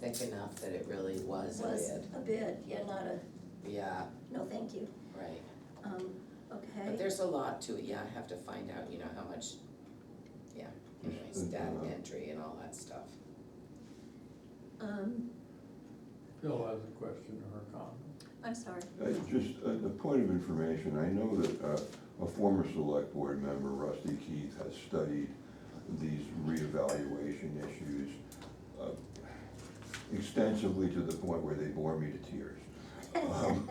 thick enough that it really was a Was bid, a bid, yeah, not a, yeah, no, thank you. right. Um, But okay, there's a lot to it, yeah, I have to find out, you know, how much, yeah, Mm-hmm. anyways, data entry and all that stuff. um, Phil has a question or a comment. I'm sorry. Uh, Just a a point of information, I know that uh, a former select board member, Rusty Keith, has studied these reevaluation issues uh, extensively to the point where they bore me to tears. Um,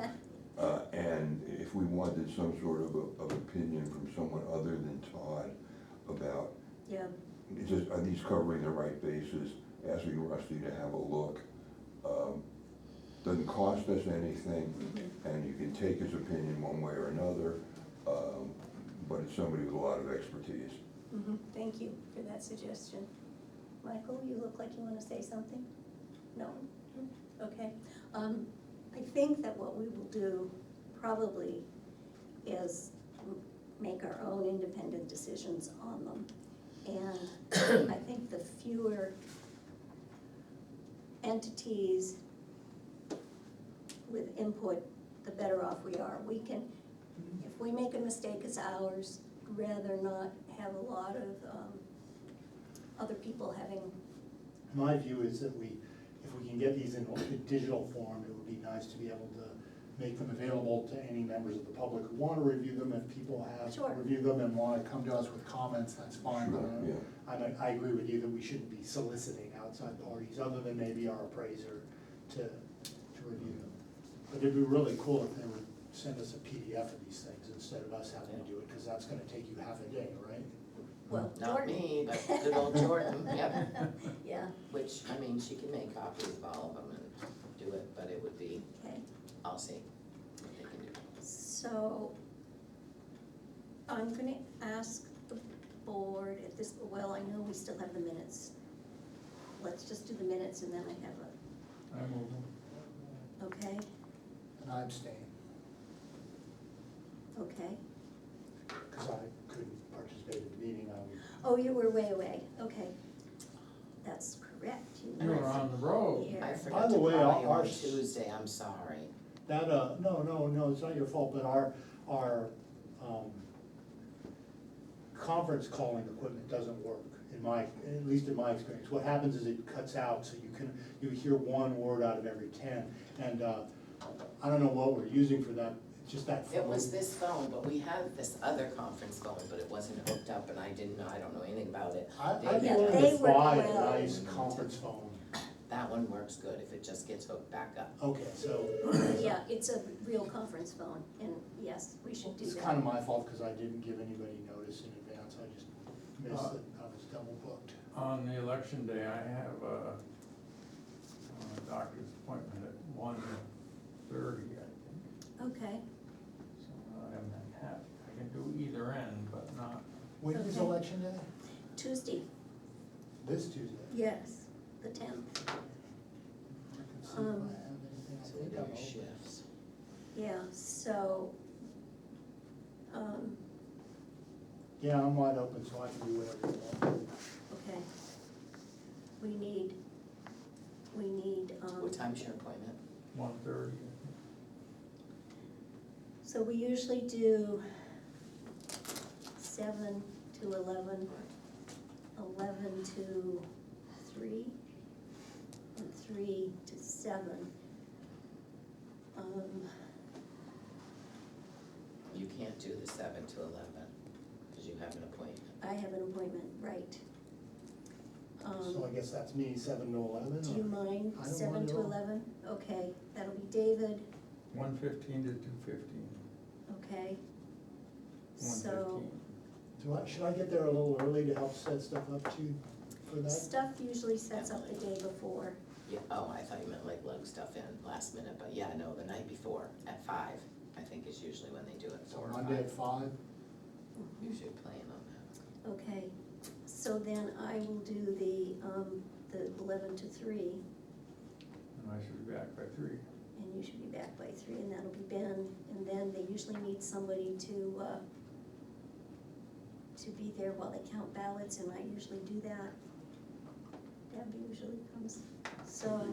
uh, And if we wanted some sort of, a- of opinion from someone other than Todd about, Yeah, it's just, are these covering the right bases, asking Rusty to have a look. um, Doesn't cost us anything, mhm, and you can take his opinion one way or another, um, but it's somebody with a lot of expertise. mhm, thank you for that suggestion. Michael, you look like you wanna say something? No? Okay, um, I think that what we will do probably is m- make our own independent decisions on them. And I think the fewer entities with input, the better off we are. We can, if we make a mistake, it's ours, rather not have a lot of, um, other people having, My view is that we, if we can get these in a digital form, it would be nice to be able to make them available to any members of the public who want to review them. If people Sure. have reviewed them and want to come to us with comments, that's fine. uh, Sure, yeah. I, mean, I agree with you that we shouldn't be soliciting outside parties, other than maybe our appraiser, to, to review them. But it'd be really cool if they would send us a PDF of these things instead of us having to do it, because that's gonna take you half a day, right? well, Not Jordan. me, but good old Jordan, yep, Yeah, which, I mean, she can make copies of all of them and do it, but it would be, okay, I'll see what they can do. so I'm gonna ask the board if this, well, I know we still have the minutes. Let's just do the minutes and then I have a, I move on. okay, And I abstain, okay. because I couldn't participate in the meeting, I would Oh, you were way away, okay. That's correct, you You were were on the road. here. I forgot to the call way, you on ours- Tuesday, I'm sorry. That, uh, no, no, no, it's not your fault, but our, our, um, conference calling equipment doesn't work, in my, at least in my experience. What happens is it cuts out, so you can, you hear one word out of every ten, and, uh, I don't know what we're using for that, it's just that It phone. was this phone, but we had this other conference phone, but it wasn't hooked up and I didn't know, I don't know anything about it. I, they- I'd be Yeah, willing they to were buy a well- nice conference phone. That one works good if it just gets hooked back up. Okay, so, Yeah, it's a real conference phone and yes, we should do it's that. kind of my fault, because I didn't give anybody notice in advance, I just missed it, I was double booked. On the election day, I have a, a doctor's appointment at one thirty, I think. Okay, So I'm not happy. I can do either end, but not, When is Okay. election day? Tuesday, This Tuesday. yes, the tenth, I can see if I Um, have anything. I So we think do I'm open. shifts. yeah, so. Um, Yeah, I'm wide open, so I can do whatever you want. okay. We need, we need, um. What time's your appointment? one thirty. So we usually do seven to eleven, eleven to three, and three to seven. Um, You can't do the seven to eleven, cause you have an appointment. I have an appointment, right. Um, So I guess that's me, seven to eleven, do you or- mind, I don't seven mind to at all. eleven? Okay, that'll be David, One fifteen to two fifteen. okay? One fifteen. So, do I, should I get there a little early to help set stuff up too for that? stuff usually sets up the day before, Yeah, oh, I thought you meant like lug stuff in last minute, but yeah, no, the night before at five, I think is usually when they do it, So four or Monday at five. five? You should plan on that. okay? So then I will do the, um, the eleven to three. And I should be back by three. And you should be back by three, and that'll be Ben, and then they usually need somebody to, uh, to be there while they count ballots, and I usually do that. Deb usually comes, so.